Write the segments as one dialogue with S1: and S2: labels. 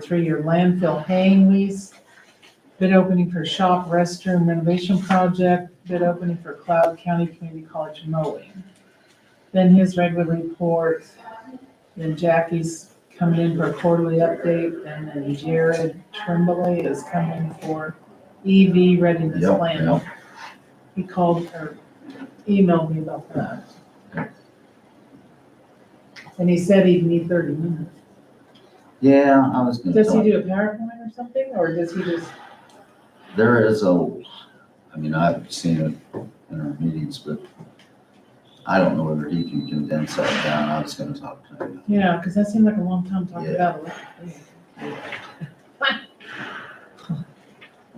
S1: three-year landfill haying lease, bid opening for shop restroom renovation project, bid opening for Cloud County Community College mowing. Then his regular report, then Jackie's coming in for a quarterly update, and then Jared Tremblay is coming for EV readiness
S2: Yep,
S1: plan.
S2: yep.
S1: He called or emailed me about that. And he said he'd need thirty minutes.
S2: Yeah, I was gonna
S1: Does he
S2: tell,
S1: do a PowerPoint or something, or does he just,
S2: there is a, I mean, I've seen it in our meetings, but I don't know whether he can condense that down. I was gonna talk to him.
S1: yeah, because that seemed like a long time talking
S2: Yeah.
S1: about it.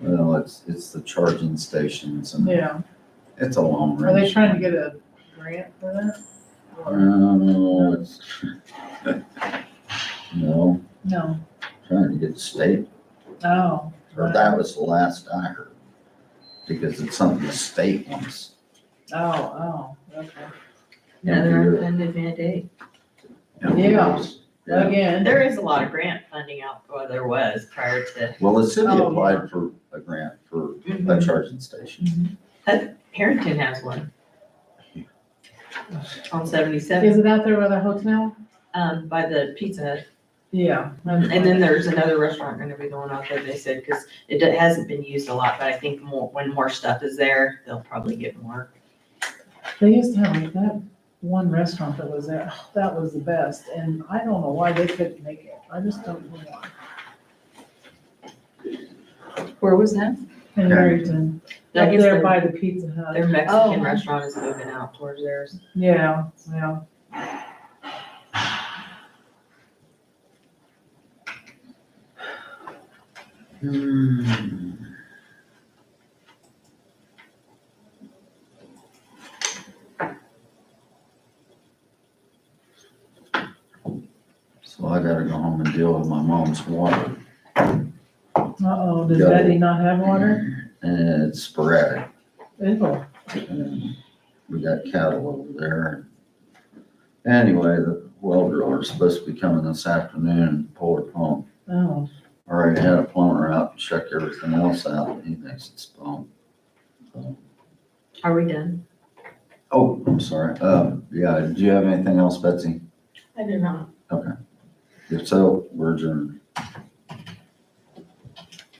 S2: Well, it's, it's the charging stations and
S1: Yeah,
S2: it's a long
S1: are
S2: range.
S1: they trying to get a grant for that?
S2: Mm.
S1: Or-
S2: No, it's. No,
S1: No,
S2: trying to get state,
S1: oh.
S2: or that was the last I heard. Because it's something the state wants.
S1: Oh, oh, okay,
S3: Another unfunded mandate.
S1: Yeah.
S2: Yeah.
S3: And
S1: again,
S3: there is a lot of grant funding out, well, there was prior to,
S2: Well, the city
S1: Oh,
S2: applied for a grant for a
S3: Mhm.
S2: charging station.
S3: Harrington has one. On seventy-seven,
S1: is it out there by the hotel?
S3: um, by the Pizza Hut.
S1: Yeah.
S3: And then there's another restaurant gonna be going out there, they said, because it do- hasn't been used a lot, but I think more, when more stuff is there, they'll probably get more.
S1: They used to have like that one restaurant that was there, oh, that was the best, and I don't know why they couldn't make it, I just don't know why.
S3: Where was that?
S1: In Barrington, up there by the Pizza Hut.
S3: Their
S1: Oh.
S3: Mexican restaurant is moving out towards theirs.
S1: Yeah, yeah.
S2: Hmm. So I gotta go home and deal with my mom's water,
S1: Uh-oh, does
S2: Yeah.
S1: Betty not have water?
S2: and it's sporadic.
S1: Ew.
S2: and We got cattle over there. Anyway, the well driller's supposed to be coming this afternoon and pull her pump.
S1: Oh,
S2: Already had a plumber out to check everything else out, and he thinks it's pump.
S3: Are we done?
S2: Oh, I'm sorry. Uh, yeah, do you have anything else, Betsy?
S3: I do not.
S2: If so, we're adjourned.